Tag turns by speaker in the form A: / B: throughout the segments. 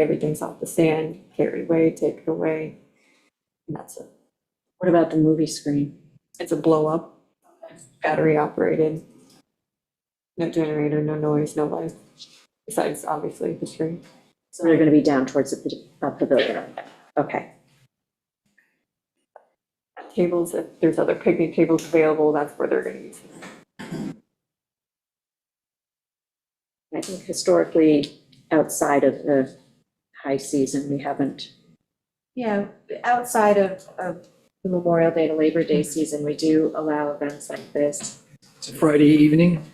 A: everything's off the sand, carry it away, take it away. And that's it.
B: What about the movie screen?
A: It's a blow up, battery operated. No generator, no noise, no life, besides obviously the screen.
B: So they're gonna be down towards the pa- uh, pavilion. Okay,
A: Tables, if there's other picnic tables available, that's where they're gonna use it.
B: I think historically, outside of the high season, we haven't. Yeah, outside of, of Memorial Day to Labor Day season, we do allow events like this.
C: It's a Friday evening.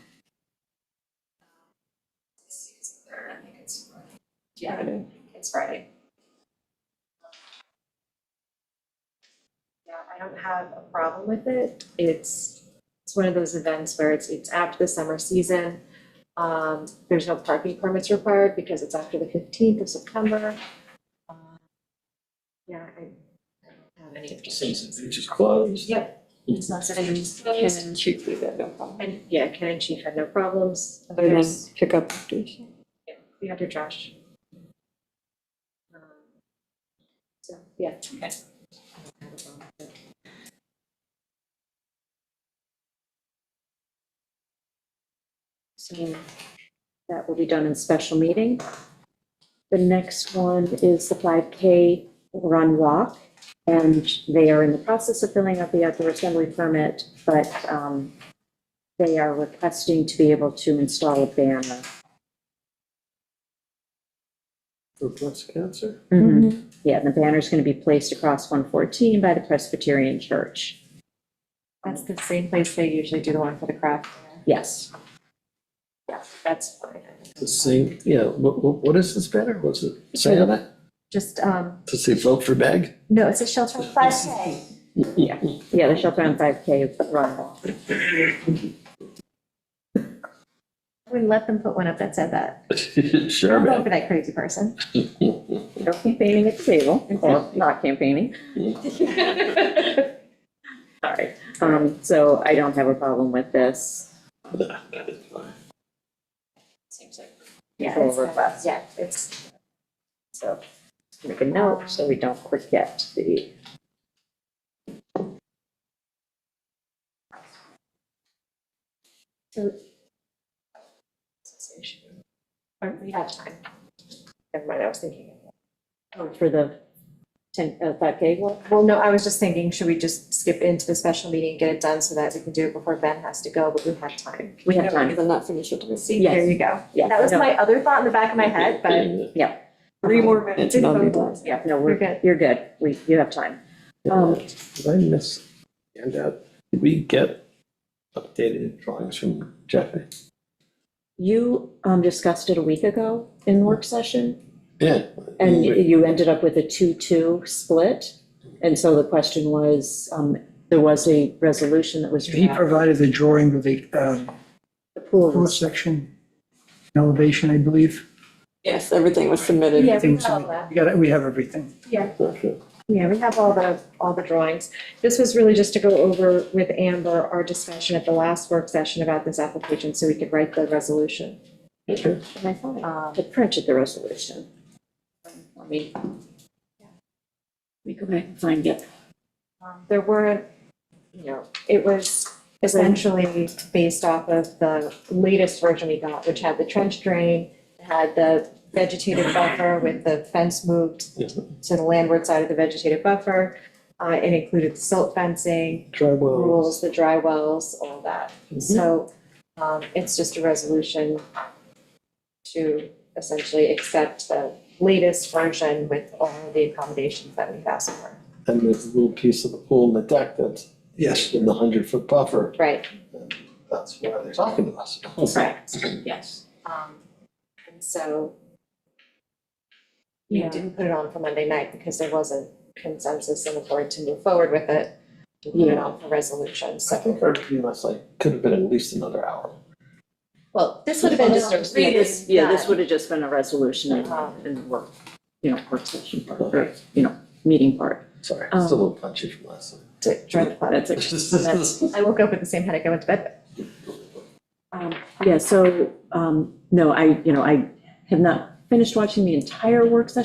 B: Yeah,
A: Friday.
B: it's Friday. Yeah, I don't have a problem with it. It's, it's one of those events where it's, it's after the summer season. Um, there's no parking permits required because it's after the fifteenth of September. Um, Yeah, I I don't have any objections.
C: It's just closed.
B: Yep, it's not set in
A: Ken
B: stone.
A: and Chief do that, no problem.
B: And, yeah, Ken and Chief had no problems.
A: Other than
B: There's-
A: pick up after.
B: yeah, we have your trash. Um, So, yeah. Okay. So that will be done in special meeting. The next one is the 5K run walk. And they are in the process of filling out the outdoor assembly permit, but um, they are requesting to be able to install a banner
C: For breast cancer?
B: Mm-hmm. Yeah, and the banner's going to be placed across 114 by the Presbyterian Church.
A: That's the same place they usually do the one for the craft.
B: Yes.
A: Yeah, that's fine.
C: The same, yeah, what, what, what is this banner? What's it say on it?
B: Just, um,
C: To say vote for bag?
B: no, it's a shelter on 5K. Yeah, yeah, the shelter on 5K run.
D: We let them put one up that said that.
C: Sure,
D: I'll
C: man.
D: vote for that crazy person.
B: No campaigning at the table, or not campaigning. Sorry. Um, So I don't have a problem with this. Seems like.
D: Yeah,
B: Full
D: it's, uh,
B: request.
D: Yeah, it's,
B: So make a note so we don't forget the.
D: or we have time. Oh, Never mind, I was thinking.
B: For the 10, uh, 5K one?
D: Well, no, I was just thinking, should we just skip into the special meeting, get it done so that we can do it before Ben has to go, but we have time.
B: We have
A: Because
B: time,
A: I'm not finished with this.
D: See, there you go.
B: yeah.
D: That was
B: no,
D: my other thought in the back of my head, but
B: Yeah,
A: Three more minutes.
C: It's not
A: Vote.
C: important.
B: yeah, no,
D: You're
B: we're,
D: good.
B: you're good, we, you have time. Um,
C: Did I miss, and, uh, did we get updated drawings from Jeffy?
B: You, um, discussed it a week ago in work session,
C: Yeah.
B: and
C: We-
B: you ended up with a two-two split. And so the question was, um, there was a resolution that was
E: He
B: drafted,
E: provided the drawing of the um,
B: the pool
E: floor
B: was,
E: section elevation, I believe.
A: Yes, everything was submitted.
D: yeah, we
E: Things
D: have all that.
E: like- We got, it- we have everything.
C: Gotcha.
D: Yeah, we have all the, all the drawings. This was really just to go over with Amber our discussion at the last work session about this application, so we could write the resolution.
C: Okay.
B: and I thought
D: Um,
B: I had printed the resolution. Let me. We go back and find it.
D: Um, There weren't, you know, it was essentially based off of the latest version we got, which had the trench drain, had the vegetated buffer with the fence moved
C: Yeah.
D: to the landward side of the vegetated buffer. Uh, it included silt fencing,
C: Dry Mm-hmm. well.
D: rules, the dry wells, all that. So, um, it's just a resolution to essentially accept the latest version with all the accommodations that we've asked for.
C: And there's a little piece of the pool in the deck that's
E: Yes.
C: in the hundred foot buffer.
D: Right,
C: That's why they're talking to us.
B: Correct, yes.
D: Um, and so. We
B: Yeah.
D: didn't put it on for Monday night because there wasn't consensus in the board to move forward with it. We put it on for resolution,
C: I
D: so,
C: think our meeting last night could have been at least another hour.
D: well, this would have been just a.
B: Yeah, this- Yeah, this would have just been a resolution and, and work, you know, work session part, or, you know, meeting part.
C: Sorry, still a little punchy from last night.
D: To join the club.
B: That's it.
C: That's-
D: I woke up with the same headache I went to bed with.
B: Um, Yeah, so, um, no, I, you know, I have not finished watching the entire work session